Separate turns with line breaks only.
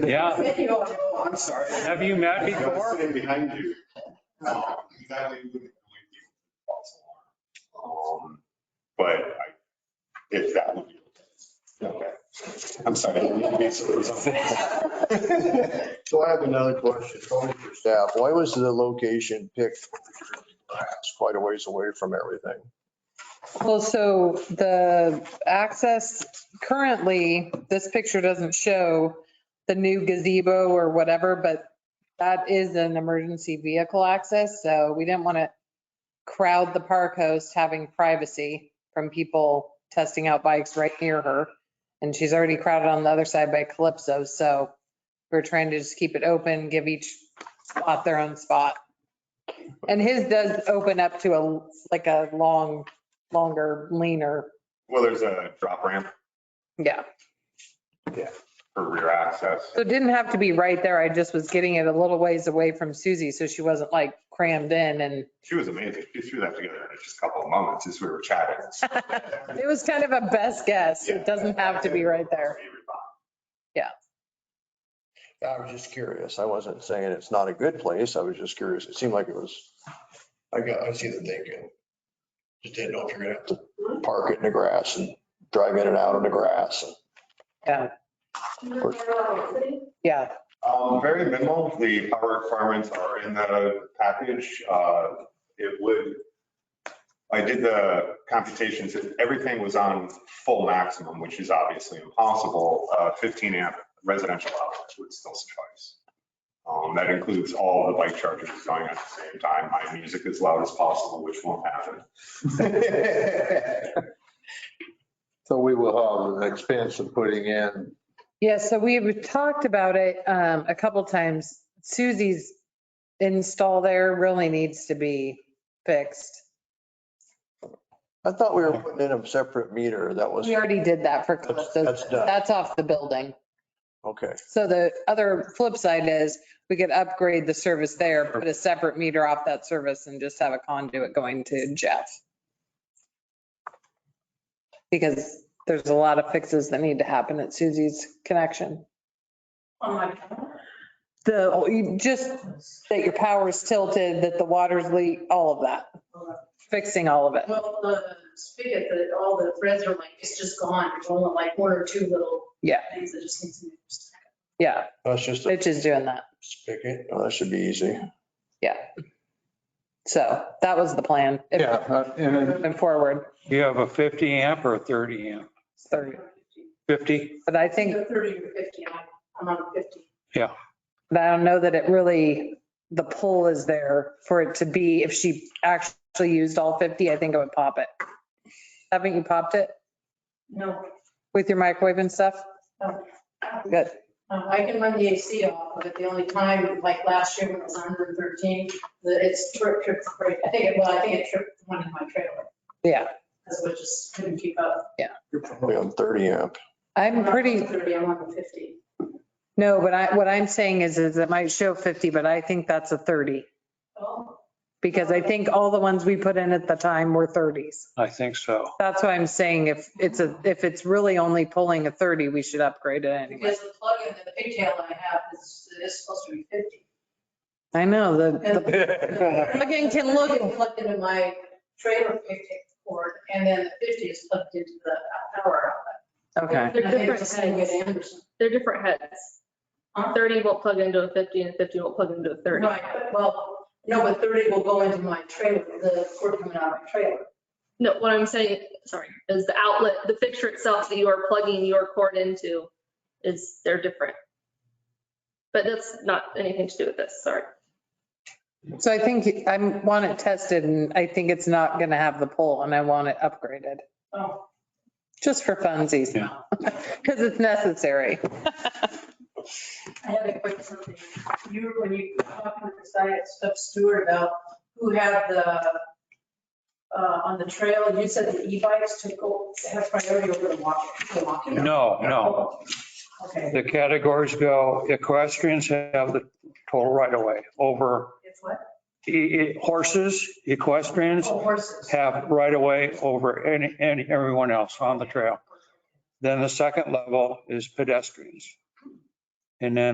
Yeah.
Oh, I'm sorry.
Have you met
I gotta
before?
Stay behind you. Um, That way you wouldn't really be false alarm. Um, But I, if that would be okay. Okay. I'm sorry. I didn't mean to be so-
So I have another question, Tony, for staff. Why was the location picked It's quite a ways away from everything?
Well, so the access, currently, this picture doesn't show the new gazebo or whatever, but that is an emergency vehicle access, so we didn't want to crowd the park host having privacy from people testing out bikes right near her. And she's already crowded on the other side by Calypso, so we're trying to just keep it open, give each spot their own spot. And his does open up to a, like a long longer, leaner.
Well, there's a drop ramp
Yeah.
for rear access.
So it didn't have to be right there. I just was getting it a little ways away from Susie, so she wasn't like crammed in and
She was amazing. She threw that together in just a couple of moments as we were chatting.
it was kind of a best guess. It doesn't have to be right there.
I was just curious. I wasn't saying it's not a good place. I was just curious. It seemed like it was, I got, I see the thinking. Just didn't know if you're gonna have to park it in the grass and drive in and out in the grass.
Yeah.
Um, very minimal. The power requirements are in the package. Uh, it would, I did the computations, if everything was on full maximum, which is obviously impossible, uh, 15 amp residential outlets would still suffice. Um, that includes all the bike chargers going at the same time, my music as loud as possible, which won't happen.
So we will have an expense of putting in,
Yeah, so we've talked about it um, a couple times. Susie's install there really needs to be fixed.
I thought we were putting in a separate meter. That was,
We already did that for
That's-
Calypso.
that's done.
That's off the building.
okay.
So the other flip side is we could upgrade the service there, put a separate meter off that service and just have a conduit going to Jeff. Because there's a lot of fixes that need to happen at Suzie's connection. The, oh, you- just that your power's tilted, that the water's leak, all of that. Fixing all of it.
Well, the spigot, that all the threads are like, it's just gone. There's only like one or two little
Yeah.
things that just need to be.
Yeah,
That's just a
Mitch is doing that.
spigot. Oh, That should be easy.
So that was the plan. If-
yeah, uh, and then
Moving forward,
You have a 50 amp or a 30 amp?
thirty.
50?
But I think
Either 30 or 50. I'm- I'm on 50.
But I don't know that it really, the pull is there for it to be, if she actually used all 50, I think it would pop it. Haven't you popped it
No,
with your microwave and stuff?
No.
Good.
no, I can run the AC off, but the only time, like last year when it was 113, the, it's trip, trip, break. I think, it- well, I think it tripped one in my trailer.
Yeah,
That's what just couldn't keep up.
You're probably on 30 amp.
I'm
not
pretty,
on 30, I'm on the 50.
no, but I, what I'm saying is, is it might show 50, but I think that's a 30.
Oh,
Because I think all the ones we put in at the time were 30s.
I think so.
That's why I'm saying if it's a, if it's really only pulling a 30, we should upgrade it anyway.
because the plug-in, the pigtail I have is, is supposed to be 50.
I know, the,
And
the plug-in can look
plug-in plugged into my trailer pigtail cord, and then the 50 is plugged into the power
okay.
outlet.
They're
And I think it's
different
the same with Anderson.
They're different heads.
Huh?
30 will plug into a 50 and 50 will plug into a 30.
Right, well, no, but 30 will go into my trailer, the cord coming out of my trailer.
No, what I'm saying, sorry, is the outlet, the fixture itself that you are plugging your cord into is, they're different. But that's not anything to do with this, sorry.
So I think I want it tested and I think it's not going to have the pull and I want it upgraded,
Oh,
just for funsies
Yeah.
now, because it's necessary.
I had a quick something. You, were- when you were talking to the science stuff steward about who had the, uh, on the trail, you said the e-bikes took, o- have priority over the walk- the walking.
No, no.
Okay,
The categories go, equestrians have the total right of way over,
it's what?
e- e- horses, equestrians
Oh, horses.
have right of way over any, any, everyone else on the trail. Then the second level is pedestrians. And then